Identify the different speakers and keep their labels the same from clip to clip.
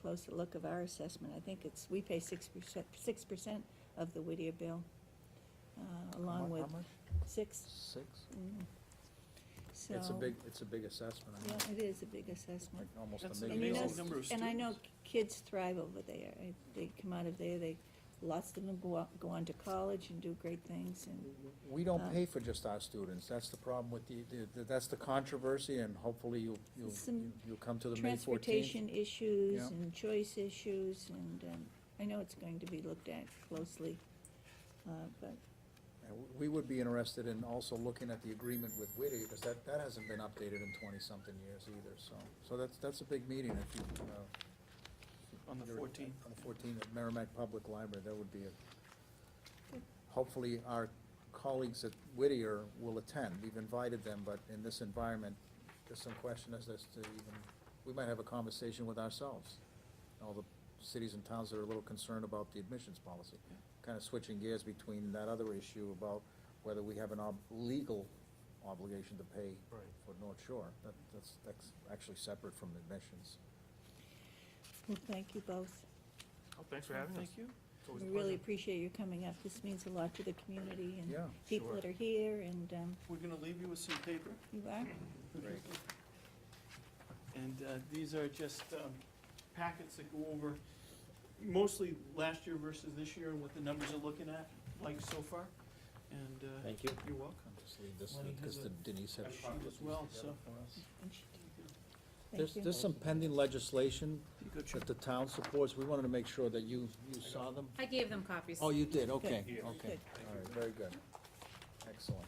Speaker 1: closer look of our assessment. I think it's, we pay six percent, six percent of the Whittier bill, uh, along with six.
Speaker 2: Six?
Speaker 1: mm. So.
Speaker 2: It's a big, it's a big assessment, I mean,
Speaker 1: Yeah, it is a big assessment.
Speaker 2: like almost
Speaker 3: That's
Speaker 2: a
Speaker 3: an
Speaker 1: And you
Speaker 2: million
Speaker 1: know,
Speaker 3: amazing
Speaker 2: dollars.
Speaker 3: number of
Speaker 1: And I know
Speaker 3: students.
Speaker 1: kids thrive over there. I- They come out of there, they, lots of them go out, go on to college and do great things and,
Speaker 2: We
Speaker 1: Uh,
Speaker 2: don't pay for just our students, that's the problem with the, the- that's the controversy, and hopefully you'll, you'll,
Speaker 1: Some
Speaker 2: you'll come to the May fourteenth.
Speaker 1: transportation issues
Speaker 2: Yeah.
Speaker 1: and choice issues and, um, I know it's going to be looked at closely. Uh, but
Speaker 2: We would be interested in also looking at the agreement with Whittier, because that, that hasn't been updated in twenty-something years either, so, so that's, that's a big meeting if you, uh.
Speaker 3: On the
Speaker 2: you're-
Speaker 3: 14th.
Speaker 2: On the fourteenth, at Merrimack Public Library, that would be a, hopefully our colleagues at Whittier will attend, we've invited them, but in this environment, there's some question as as to even, we might have a conversation with ourselves, all the cities and towns that are a little concerned about the admissions policy, kind of switching gears between that other issue about whether we have an ob- legal obligation to pay
Speaker 3: Right.
Speaker 2: for North Shore, that, that's, that's actually separate from admissions.
Speaker 1: Well, thank you both.
Speaker 4: Oh, thanks for having us.
Speaker 3: Thank you.
Speaker 4: It's always a
Speaker 1: We really
Speaker 4: pleasure.
Speaker 1: appreciate you coming up. This means a lot to the community and
Speaker 2: Yeah,
Speaker 1: people that
Speaker 4: sure.
Speaker 1: are here and, um,
Speaker 3: We're gonna leave you with some paper,
Speaker 1: you are.
Speaker 2: Great.
Speaker 3: and uh, these are just um, packets that go over mostly last year versus this year and what the numbers are looking at, like so far. And uh,
Speaker 2: Thank you.
Speaker 3: you're welcome.
Speaker 2: I'll just leave this,
Speaker 3: Lenny
Speaker 2: because
Speaker 3: has a-
Speaker 2: Denise had.
Speaker 3: a
Speaker 2: she
Speaker 3: copy
Speaker 2: put
Speaker 3: as
Speaker 2: these
Speaker 3: well,
Speaker 2: together
Speaker 3: so-
Speaker 2: for us. There's,
Speaker 1: Thank you.
Speaker 2: there's some pending legislation
Speaker 3: You go check.
Speaker 2: that the town supports, we wanted to make sure that you, you saw them.
Speaker 5: I gave them copies.
Speaker 2: Oh, you did, okay, okay.
Speaker 3: Yeah.
Speaker 2: All
Speaker 1: Good.
Speaker 2: right, very good. Excellent.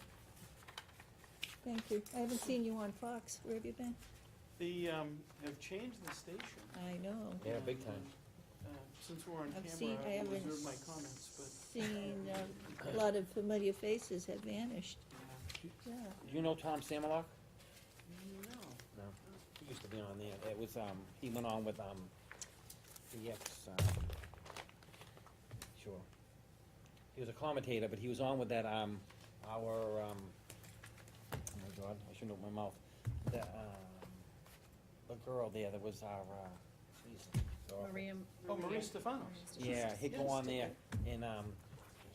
Speaker 1: Thank you. I haven't seen you on Fox. Where have you been?
Speaker 3: They um, have changed the station.
Speaker 1: I know.
Speaker 6: Yeah, big
Speaker 3: and,
Speaker 6: time.
Speaker 3: uh, Since we're on
Speaker 1: I've seen,
Speaker 3: camera,
Speaker 1: I
Speaker 3: I will
Speaker 1: haven't
Speaker 3: reserve my comments, but.
Speaker 1: seen, uh, a lot of familiar faces have vanished,
Speaker 3: uh,
Speaker 1: yeah.
Speaker 6: You know Tom Samolak?
Speaker 3: yeah. No.
Speaker 6: No. He used to be on there. It was, um, he went on with, um, the ex, um, sure. He was a commentator, but he was on with that, um, our, um, oh my god, I shouldn't open my mouth. The, um, the girl there that was our, uh, she's awful.
Speaker 5: Maria.
Speaker 3: Oh, Maria Stefanos.
Speaker 6: Yeah, he'd go
Speaker 3: Yes,
Speaker 6: on there
Speaker 3: okay.
Speaker 6: and, um,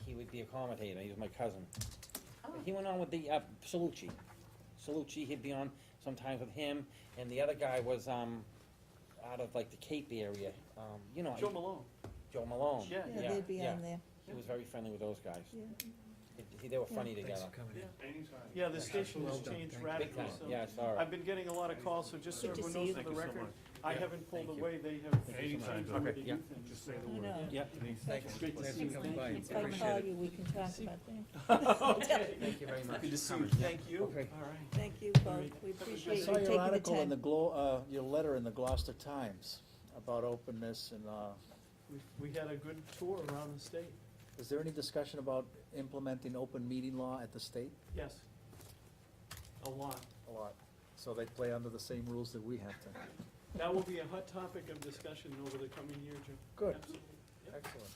Speaker 6: he would be a commentator. He was my cousin.
Speaker 5: Oh.
Speaker 6: He went on with the, uh, Salucci. Salucci, he'd be on sometimes with him, and the other guy was, um, out of like the Cape area, um, you
Speaker 2: Oh,
Speaker 6: know.
Speaker 3: Joe Malone.
Speaker 6: Joe Malone.
Speaker 3: Yeah,
Speaker 1: Yeah, they'd be
Speaker 6: yeah.
Speaker 1: on there,
Speaker 6: He was very friendly with those guys.
Speaker 1: yeah.
Speaker 6: He- He, they were funny together.
Speaker 3: Yeah, the station has changed
Speaker 6: Big
Speaker 3: radically,
Speaker 6: time,
Speaker 3: so.
Speaker 6: yeah, sorry.
Speaker 3: I've been getting a lot of calls, so just so
Speaker 1: Good to
Speaker 3: everyone
Speaker 1: see
Speaker 3: knows
Speaker 1: you.
Speaker 3: for
Speaker 4: Thank
Speaker 3: the
Speaker 4: you so
Speaker 3: record,
Speaker 4: much.
Speaker 3: I
Speaker 6: Yeah,
Speaker 3: haven't pulled
Speaker 6: thank you.
Speaker 3: away, they have.
Speaker 4: Anytime,
Speaker 3: done with
Speaker 4: okay,
Speaker 3: the
Speaker 6: yeah.
Speaker 3: youth and-
Speaker 4: Just say the
Speaker 1: I
Speaker 4: word.
Speaker 1: know.
Speaker 6: Yeah.
Speaker 2: Thank you.
Speaker 3: Great to see you. Thank you.
Speaker 1: If I call you, we can talk about that.
Speaker 3: Okay.
Speaker 6: Thank you very much.
Speaker 3: Good to see you,
Speaker 6: Coming, yeah.
Speaker 3: thank you. All
Speaker 6: Okay.
Speaker 3: right.
Speaker 1: Thank you both, we
Speaker 2: I
Speaker 1: appreciate you
Speaker 2: saw
Speaker 1: taking
Speaker 2: your
Speaker 1: the
Speaker 2: article in the
Speaker 1: time.
Speaker 2: Glo, uh, your letter in the Gloucester Times about openness and, uh,
Speaker 3: We, we had a good tour around the state.
Speaker 2: is there any discussion about implementing open meeting law at the state?
Speaker 3: Yes. A lot.
Speaker 2: A lot. So they play under the same rules that we have to.
Speaker 3: That will be a hot topic of discussion over the coming year, Jim.
Speaker 2: Good.
Speaker 3: Absolutely. Yep.
Speaker 2: Excellent.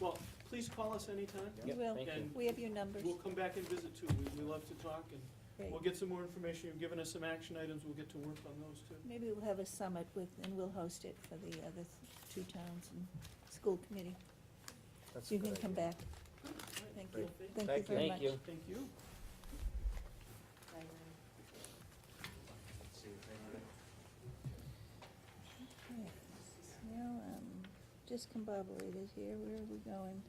Speaker 3: Well, please call us anytime.
Speaker 2: Yeah.
Speaker 1: You will,
Speaker 6: Thank you.
Speaker 3: And
Speaker 1: we have your numbers,
Speaker 3: we'll come back and visit too. We, we love to talk and
Speaker 1: great.
Speaker 3: we'll get some more information. You've given us some action items. We'll get to work on those too.
Speaker 1: Maybe we'll have a summit with, and we'll host it for the other two towns and school committee.
Speaker 2: That's a
Speaker 1: You
Speaker 2: good
Speaker 1: can come
Speaker 2: idea.
Speaker 1: back, thank you,
Speaker 3: Great.
Speaker 1: thank you
Speaker 2: Thank you.
Speaker 1: very much.
Speaker 6: Thank you.
Speaker 3: Thank you.
Speaker 1: Okay. Well, um, discombobulated here, where are we going?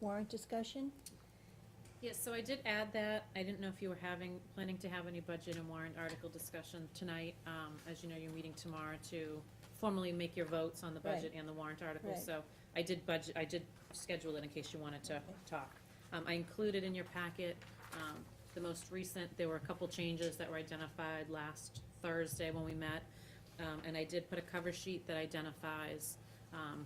Speaker 1: Warrant discussion?
Speaker 5: Yes, so I did add that. I didn't know if you were having, planning to have any budget and warrant article discussion tonight. Um, as you know, you're meeting tomorrow to formally make your votes on the budget and the warrant article.
Speaker 1: Right.
Speaker 5: So I did budget, I did schedule it in case you wanted to
Speaker 1: Okay.
Speaker 5: talk. Um, I included in your packet, um, the most recent, there were a couple changes that were identified last Thursday when we met. Um, and I did put a cover sheet that identifies, um,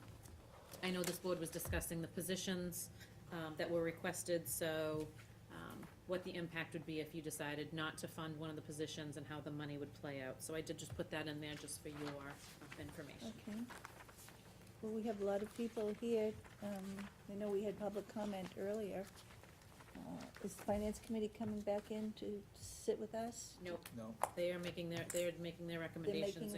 Speaker 5: I know this board was discussing the positions um, that were requested, so um, what the impact would be if you decided not to fund one of the positions and how the money would play out. So I did just put that in there just for your uh, information.
Speaker 1: Okay. Well, we have a lot of people here. Um, I know we had public comment earlier. Uh, Is the finance committee coming back in to sit with us?
Speaker 5: Nope,
Speaker 2: No?
Speaker 5: they are making their, they're making their recommendations